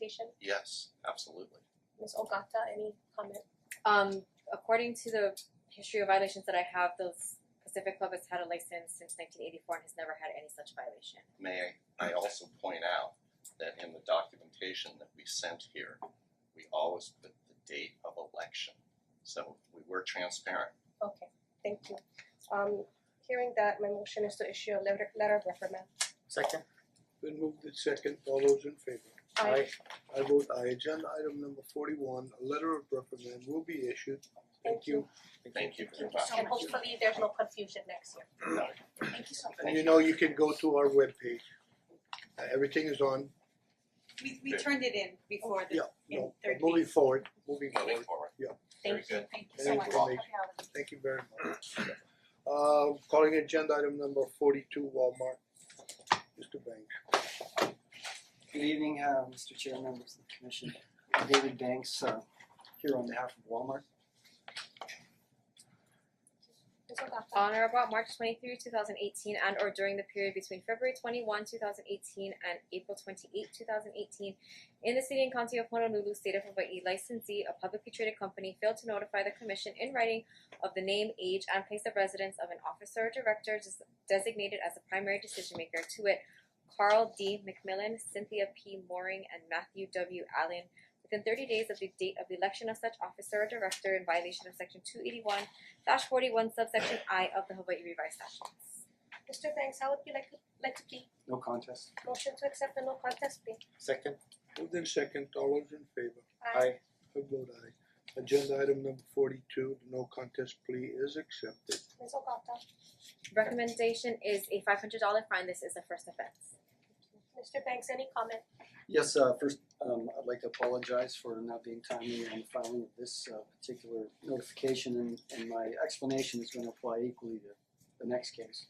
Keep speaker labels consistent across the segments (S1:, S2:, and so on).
S1: presentation?
S2: Yes, absolutely.
S1: Ms. Ogata, any comment?
S3: Um, according to the history of violations that I have, those Pacific Club has had a license since 1984 and has never had any such violation.
S2: May I also point out that in the documentation that we sent here, we always put the date of election. So we were transparent.
S1: Okay, thank you. Um hearing that, my motion is to issue a letter letter of reprimand.
S4: Second.
S5: Been moved in second, all those in favor?
S1: Aye.
S5: I vote aye, agenda item number forty one, a letter of reprimand will be issued.
S1: Thank
S5: Thank
S1: you.
S5: you.
S2: Thank you very
S1: So
S2: much.
S1: hopefully there's no confusion next year. Thank you so much.
S5: And you know you can go to our webpage. Uh everything is on,
S6: We we turned it in before the
S5: yeah,
S6: in
S5: no, but
S6: third
S5: moving
S6: week.
S5: forward, moving
S2: Moving
S5: forward,
S2: forward. Very
S1: Thank you.
S2: good.
S6: Thank you so
S5: Any
S6: much.
S5: information? thank you very much. Uh calling agenda item number forty two Walmart. Mr. Banks.
S4: Good evening, uh Mr. Chair, members of the commission. I'm David Banks, uh here on behalf of Walmart.
S1: Ms. Ogata.
S3: On or about March 23, 2018 and or during the period between February 21, 2018 and April 28, 2018 in the city and county of Honolulu, state of Hawaii, licensee, a publicly traded company, failed to notify the commission in writing of the name, age, and place of residence of an officer or director des- designated as the primary decision maker, to wit, Carl D. McMillan, Cynthia P. Mooring, and Matthew W. Allen, within 30 days of the date of the election of such officer or director in violation of section 281 dash forty one subsection I of the Hawaii revised statutes.
S1: Mister Banks, how would you like to like to plead?
S4: No contest.
S1: Motion to accept the no contest plea.
S4: Second.
S5: Moved in second, all those in favor?
S1: Aye.
S5: I vote aye. Agenda item number forty two, the no contest plea is accepted.
S1: Ms. Ogata.
S3: Recommendation is a five hundred dollar fine, this is a first offense.
S1: Mister Banks, any comment?
S4: Yes, uh first, um I'd like to apologize for not being timely on the filing of this uh particular notification and and my explanation is gonna apply equally to the next case.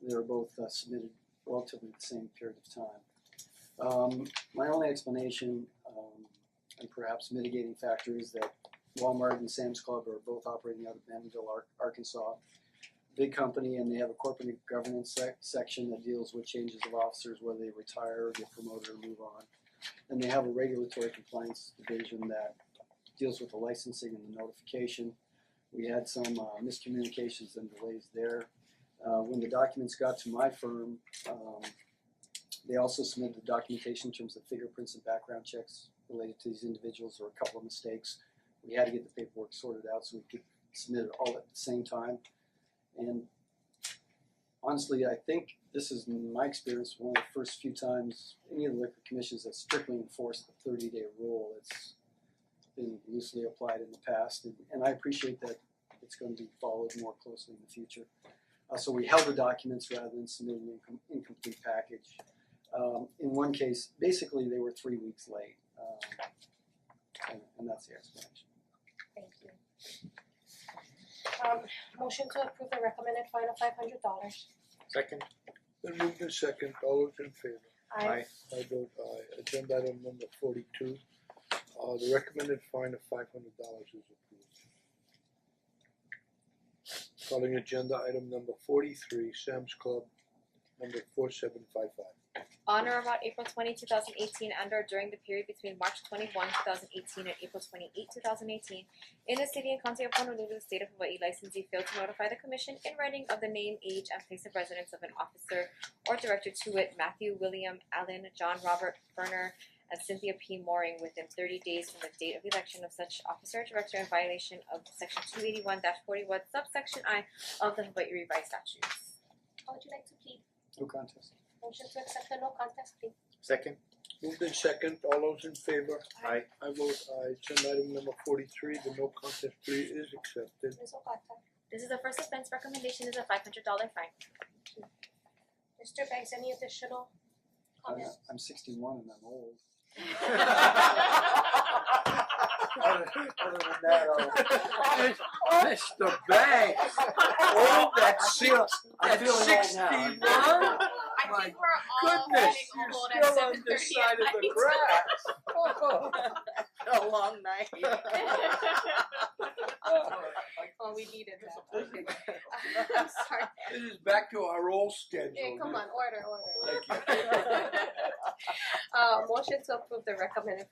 S4: They were both uh, submitted relatively the same period of time. Um my only explanation um and perhaps mitigating factor is that Walmart and Sam's Club are both operating out of Bentonville, Ar- Arkansas. Big company and they have a corporate governance sec- section that deals with changes of officers, whether they retire, get promoted or move on. And they have a regulatory compliance division that deals with the licensing and the notification. We had some uh, miscommunications and delays there. Uh, when the documents got to my firm, um, they also submitted the documentation in terms of fingerprints and background checks related to these individuals. There were a couple of mistakes. We had to get the paperwork sorted out so we could submit it all at the same time. And honestly, I think this is, in my experience, one of the first few times any of the liquor commissions that strictly enforced the thirty day rule. It's been loosely applied in the past, and, and I appreciate that it's going to be followed more closely in the future. Uh, so we held the documents rather than submitting an incom- incomplete package. Um, in one case, basically, they were three weeks late, um, and, and that's the explanation.
S1: Thank you. Um motion to approve the recommended fine of five hundred dollars.
S4: Second.
S5: Then moved in second, all those in favor?
S1: Aye.
S5: I vote aye. Agenda item number forty-two, uh the recommended fine of five hundred dollars is approved. Calling agenda item number forty-three, Sam's Club, number four seven five five.
S3: On or about April 20, 2018 and or during the period between March 21, 2018 and April 28, 2018 in the city and county of Honolulu, state of Hawaii, licensee failed to notify the commission in writing of the name, age, and place of residence of an officer or director to wit Matthew William Allen, John Robert Ferner, and Cynthia P. Mooring within 30 days from the date of election of such officer or director in violation of section 281-41 subsection I of the Hawaii revised statutes.
S1: How would you like to plead?
S4: No contest.
S1: Motion to accept the no contest plea.
S4: Second.
S5: Moved in second, all those in favor?
S4: Aye.
S5: I vote aye. Agenda item number forty-three, the no contest plea is accepted.
S1: Ms. Ogata.
S3: This is a first offense, recommendation is a five hundred dollar fine.
S1: Mister Banks, any additional
S4: I'm,
S1: comments?
S4: I'm sixty-one and I'm old.
S5: Other other than that,
S1: Aye.
S5: uh, Mr. Banks, oh, that's six,
S4: I'm
S5: that's
S4: feeling old now.
S5: sixty-one?
S7: I think we're all
S5: Goodness,
S7: getting old
S5: you're
S7: at
S5: still
S7: seven
S5: on this
S7: thirty
S5: side
S7: at
S5: of the grass.
S6: A long night.
S7: Well, we needed that.
S6: I'm sorry.
S5: This is back to our old schedule.
S1: Yeah, come on, order, order.
S5: Thank you.
S1: Uh motion to approve the recommended